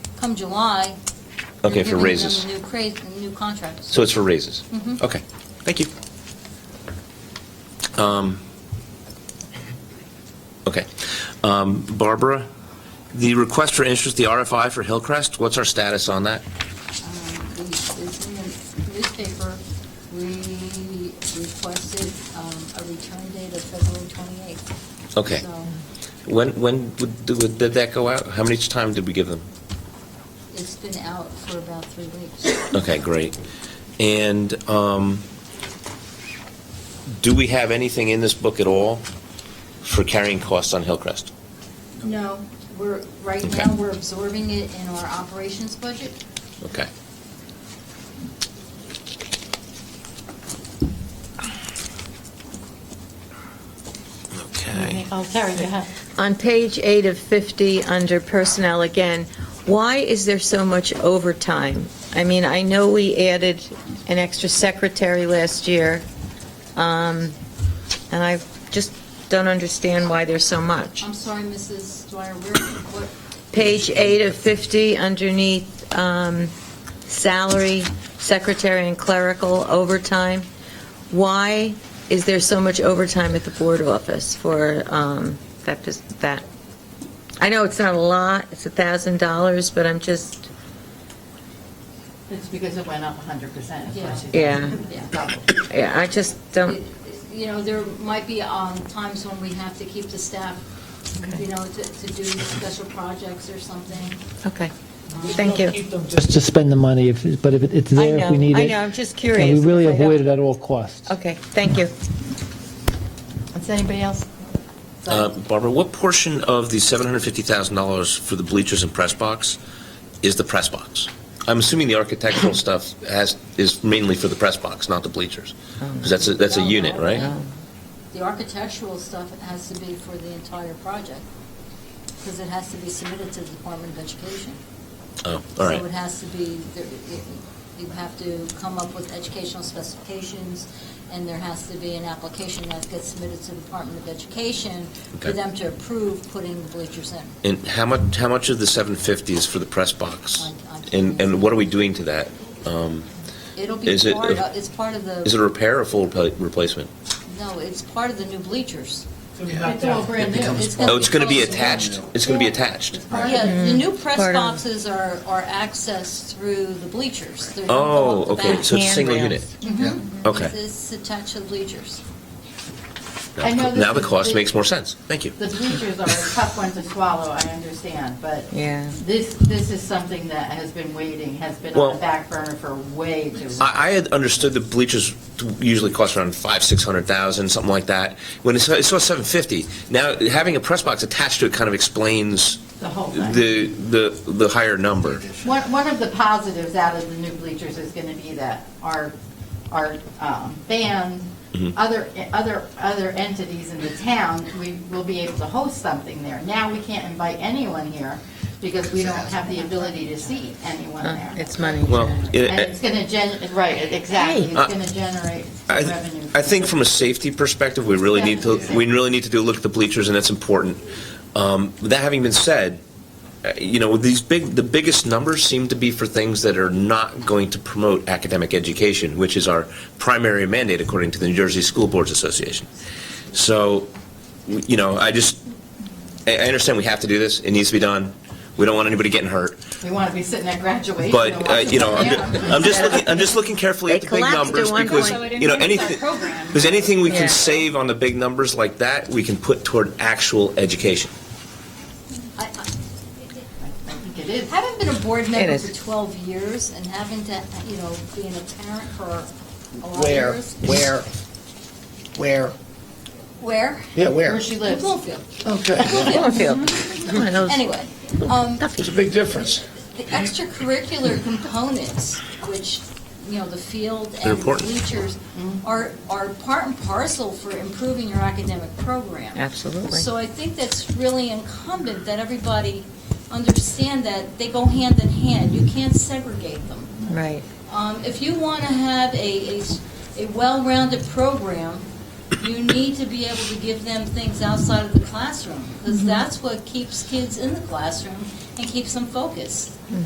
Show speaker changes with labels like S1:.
S1: come July.
S2: Okay,
S1: you're
S2: for
S1: giving them
S2: raises.
S1: New cra- new contracts.
S2: So it's for raises?
S1: Mhm.
S2: Okay, thank you. Um, Okay. Um, Barbara, the request for interest, the RFI for Hillcrest, what's our status on that?
S1: Um, we- It's in the newspaper, we requested um, a return date of February 28th.
S2: Okay.
S1: So
S2: When, when would- would- did that go out? How much time did we give them?
S1: it's been out for about three weeks.
S2: Okay, great. And um, do we have anything in this book at all for carrying costs on Hillcrest?
S1: No, we're, right
S2: Okay.
S1: now, we're absorbing it in our operations budget.
S2: Okay. Okay.
S3: Oh, Karen, you have.
S4: On page eight of 50, under personnel again, why is there so much overtime? I mean, I know we added an extra secretary last year, um, and I just don't understand why there's so much.
S1: I'm sorry, Mrs. Dwyer, where, what,
S4: Page eight of 50, underneath um, salary, secretary and clerical overtime, why is there so much overtime at the board office for um, that, pos- that? I know it's not a lot, it's $1,000, but I'm just,
S3: It's because it went up 100%. of course.
S4: Yeah.
S1: Yeah.
S3: Double.
S4: yeah, I just
S1: It-
S4: don't,
S1: You know, there might be um, times when we have to keep the staff, you know, to to do special projects or something.
S4: okay, thank you.
S5: Keep them Just to spend the money, if, but if it- it's
S4: I
S5: there, if we
S4: know,
S5: need
S4: I
S5: it.
S4: know, I'm just
S5: and
S4: curious.
S5: we really
S4: I don't-
S5: avoid it at all costs.
S4: Okay, thank you.
S3: Does anybody else?
S2: Uh, Barbara, what portion of the $750,000 for the bleachers and press box is the press box? I'm assuming the architectural stuff has, is mainly for the press box, not the bleachers, because that's, a- that's a
S1: Oh. No,
S2: unit,
S1: no,
S2: right?
S1: no. um, The architectural stuff has to be for the entire project, because it has to be submitted to the Department of Education.
S2: Oh, all right.
S1: So it has to be, there- it- you have to come up with educational specifications, and there has to be an application that gets submitted to the Department of Education for
S2: Okay.
S1: them to approve putting the bleachers in.
S2: And how much, how much of the 750 is for the press box?
S1: I- I can't
S2: And,
S1: answer.
S2: and what are we doing to that? Um,
S1: It'll be
S2: Is it
S1: part,
S2: a-
S1: of- it's part of the.
S2: Is it a repair or full repla- replacement?
S1: No, it's part of the new bleachers.
S3: It's all brand new.
S2: Oh, it's going to be
S1: close
S2: attached? It's going to be attached?
S1: Yeah, the new press
S4: Part of-
S1: boxes are, are accessed through the bleachers. They're gonna go
S2: Oh,
S1: up the
S2: okay,
S1: back.
S2: so it's a single unit?
S4: Handrails.
S2: Okay.
S1: It's attached to the bleachers.
S2: Now-
S3: I know this
S2: Now the
S3: is
S2: cost
S3: big.
S2: makes more sense. Thank you.
S3: The bleachers are a tough one to swallow, I understand, but
S4: Yeah.
S3: this, this is something that has been waiting, has been
S2: Well-
S3: on the back burner for way too long.
S2: I, I had understood the bleachers usually cost around five, six hundred thousand, something like that. When it's, it's seven fifty, now having a press box attached to it kind of explains
S3: The whole thing.
S2: the the the higher number.
S3: One, one of the positives out of the new bleachers is going to be that our, our um, band,
S2: Mm-hmm.
S3: other, other, other entities in the town, we will be able to host something there. Now we can't invite anyone here because we don't have the ability to see anyone
S4: Uh,
S3: there.
S4: It's money.
S2: Well, it-
S3: And it's going to gen, right, exactly,
S2: Hey. Uh,
S3: it's going to generate
S2: I,
S3: revenue.
S2: I think from a safety perspective, we really need to we really need to do a look at the bleachers, and that's important. Um, that having been said, uh, you know these big the biggest numbers seem to be for things that are not going to promote academic education, which is our primary mandate according to the New Jersey School Boards Association. So, w- you know, I just I, I understand we have to do this. It needs to be done. We don't want anybody getting hurt,
S3: We want to be sitting at graduation.
S2: but
S3: and
S2: uh, you know, I'm,
S3: watching
S2: ju-
S3: them.
S2: I'm just looking. I'm just looking carefully at
S4: They
S2: the big
S4: collapsed at
S2: numbers
S4: one
S2: because
S4: point.
S2: you know anything.
S3: Program.
S2: There's anything we can
S4: Yeah.
S2: save on the big numbers like that, we can put toward actual education.
S1: I, I
S3: I think it is.
S1: having been a board member
S4: is.
S1: for 12 years and having to, you know, being a parent for a lot of
S6: Where,
S1: years.
S6: where, where?
S1: Where?
S6: Yeah, where?
S3: Where she
S1: In
S3: lives.
S1: Bloomfield.
S6: Okay,
S4: Bloomfield. Come on, those-
S1: Anyway, um,
S6: it's a big difference.
S1: the extracurricular components, which, you know, the field
S2: They're
S1: and the
S2: important.
S1: bleachers
S6: Mm-hmm.
S1: are, are part and parcel for improving your academic program.
S4: Absolutely.
S1: So I think that's really incumbent that everybody understand that they go hand in hand. You can't segregate them.
S4: Right.
S1: Um, If you want to have a, a s- a well-rounded program, you need to be able to give them things outside of the classroom, because that's what keeps kids in the classroom and keeps them focused.